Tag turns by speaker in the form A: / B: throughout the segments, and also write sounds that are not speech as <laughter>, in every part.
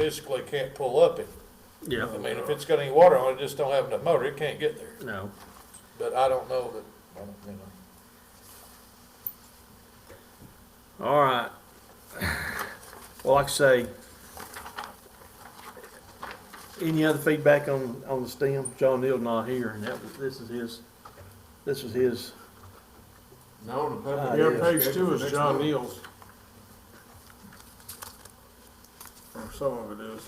A: physically can't pull up it.
B: Yeah,
A: I mean, if it's got any water on it, just don't have enough motor, it can't get there.
B: no.
A: But I don't know that, I don't, you know.
B: All right. Well, like I say, any other feedback on, on the STEM? John Neal's not here, and that, was- this is his, this was his.
C: No, the
B: Uh,
C: public.
D: Yeah,
B: yeah.
D: page two is John Neal's. Or some of it is.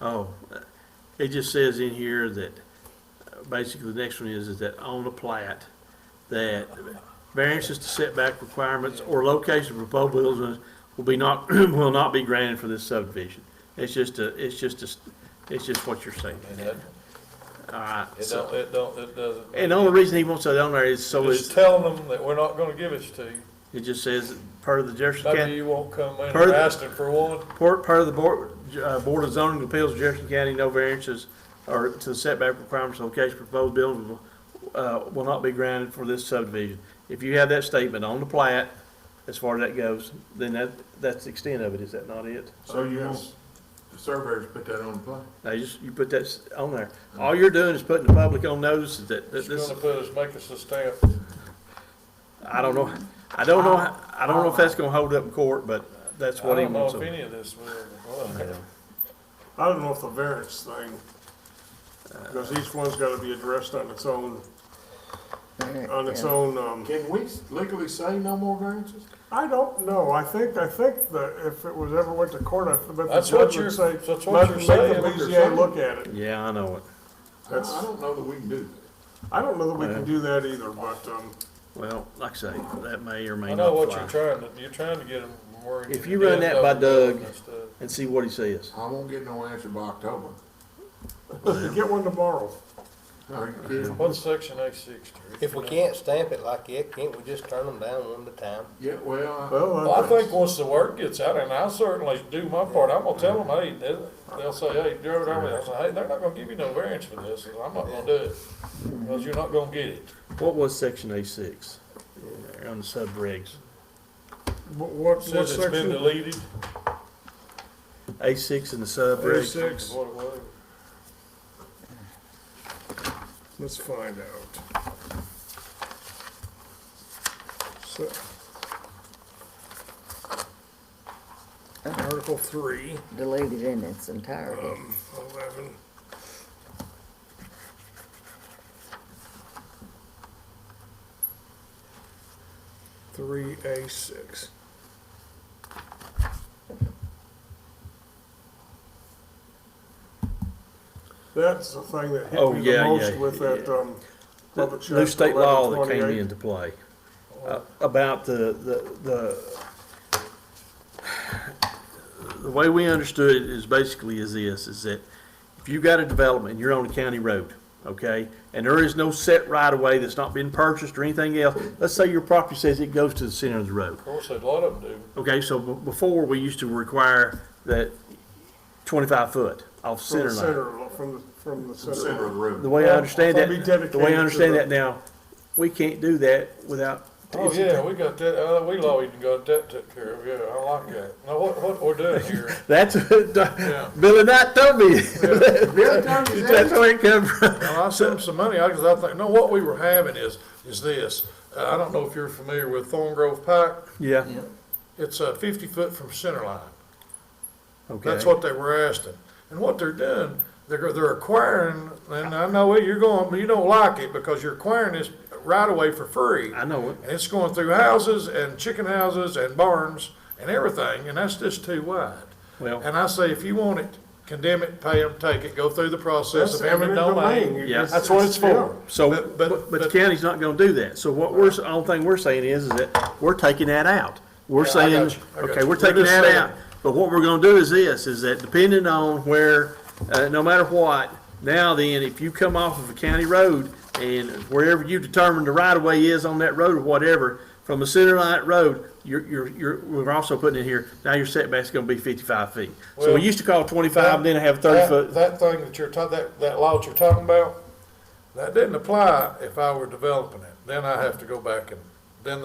B: Oh, it just says in here that, uh, basically, the next one is, is that on the plat, that variances to setback requirements or location of proposed buildings will be not, <clears throat> will not be granted for this subdivision. It's just a, it's just a, it's just what you're saying.
A: And that-
B: All right.
A: It
B: so-
A: don't, it don't, it doesn't.
B: And the only reason he wants that on there is so
A: Just
B: it's,
A: telling them that we're not gonna give it to you.
B: it just says, per the Jefferson
A: Maybe
B: County,
A: you won't come in and
B: Further-
A: ask them for one.
B: per, per the board, uh, Board of Zoning Appeals, of Jefferson County, no variances or to the setback requirements of location proposed building will, uh, will not be granted for this subdivision. If you have that statement on the plat, as far as that goes, then that, that's the extent of it, is that not it?
D: Oh,
C: So you want the surveyors put that on the plan?
B: Now, you just, you put that s- on there. All you're doing is putting the public on notice that, that
A: It's
B: this,
A: gonna put us, make us a stamp.
B: I don't know, I don't know, I don't know if that's gonna hold up in court, but that's
A: I
B: what he
A: don't know
B: wants.
A: if
B: on it.
A: any of this will.
D: I don't know if the variance thing, because each one's gotta be addressed on its own, on its own, um,
C: Can we legally say no more variances?
D: I don't know, I think, I think that if it was ever went to court, I bet the
A: That's what
D: judge
A: you're-
D: would say,
A: that's what
D: let,
A: you're
D: make
A: saying.
D: the BZA look at it.
B: Yeah, I know it.
C: I I don't know that we can do that.
D: I don't know that we can do that either, but, um,
B: Well, like I say, that may or
A: I
B: may
A: know what
B: not
A: you're
B: fly.
A: trying to, you're trying to get them worried.
B: If you run that by Doug- And see what he says.
C: I won't get no answer by October.
D: get one tomorrow.
C: Are you kidding?
A: What's section A six, Terry?
E: If we can't stamp it like that, can't we just turn them down one at a time?
C: Yeah, well,
D: Well,
A: Well, I think once the word gets out, and I certainly do my part, I'm gonna tell them, hey, they'll- they'll say, hey, Gerald, I'm, I'll say, hey, they're not gonna give you no variance for this, and I'm not gonna do it, because you're not gonna get it.
B: What was section A six? On the subregs.
D: what, what
A: Says it's been
D: section?
A: deleted.
B: A six and the
D: A
B: subregs.
D: six,
A: What it was.
D: let's find out. So. Article three.
F: deleted in its entirety.
D: Um, eleven. Three A six. That's the thing that
B: Oh,
D: hit me
B: yeah,
D: the most
B: yeah,
D: with that,
B: yeah.
D: um,
B: The
D: public
B: New
D: chapter
B: state law that
D: eleven
B: came
D: twenty-eight.
B: into play uh, about the, the, the, the way we understood it is basically is this, is that if you got a development, you're on a county road, okay? And there is no set right of way that's not been purchased or anything else. Let's say your property says it goes to the center of the road.
A: Of course, a lot of them do.
B: Okay, so b- before, we used to require that twenty-five foot off
D: From
B: center
D: the
B: line.
D: center, of- from the, from the
C: the center
D: center.
C: of the
B: The
C: room.
B: way I understand
D: Well, that'd be
B: that, the way
D: dedicated
B: I
D: to
B: understand
D: the-
B: that now, we can't do that without.
A: Oh, yeah, we got that, uh, we law even got that took care of, yeah, I like that. Now, what, what we're doing here,
B: That's,
A: Yeah.
B: Billy Knight told me, <laughs>
C: Bill Tony's
B: that's where it come from.
A: Well, I sent him some money, I, cause I think, no, what we were having is, is this, Uh, I don't know if you're familiar with Thorn Grove Pike,
B: Yeah,
A: it's, uh, fifty foot from center line.
B: okay.
A: That's what they were asking. And what they're doing, they're, they're acquiring, and I know where you're going, but you don't like it because you're acquiring this right away for free.
B: I know it.
A: And it's going through houses and chicken houses and barns and everything, and that's just too wide.
B: Well-
A: And I say, if you want it, condemn it, pay them, take it, go through the process
D: That's
A: of eminent
D: eminent
A: domain.
D: domain.
B: Yeah.
A: That's what it's for.
B: So,
A: But-
B: but,
A: but-
B: but the
A: but-
B: county's not gonna do that. So what we're, the only thing we're saying is, is that we're taking that out. We're
A: Yeah, I
B: saying,
A: got you. I got
B: okay,
A: you.
B: we're
A: We're
B: taking
A: just
B: that
A: saying-
B: out. But what we're gonna do is this, is that depending on where, uh, no matter what, now then, if you come off of a county road and wherever you determine the right of way is on that road or whatever, from the center line of that road, you're, you're, you're, we're also putting in here, now your setback's gonna be fifty-five feet. So
A: Well,
B: we used to call twenty-five, then have thirty
A: That-
B: foot.
A: That thing that you're talking, that, that law that you're talking about, that didn't apply if I were developing it. Then I have to go back and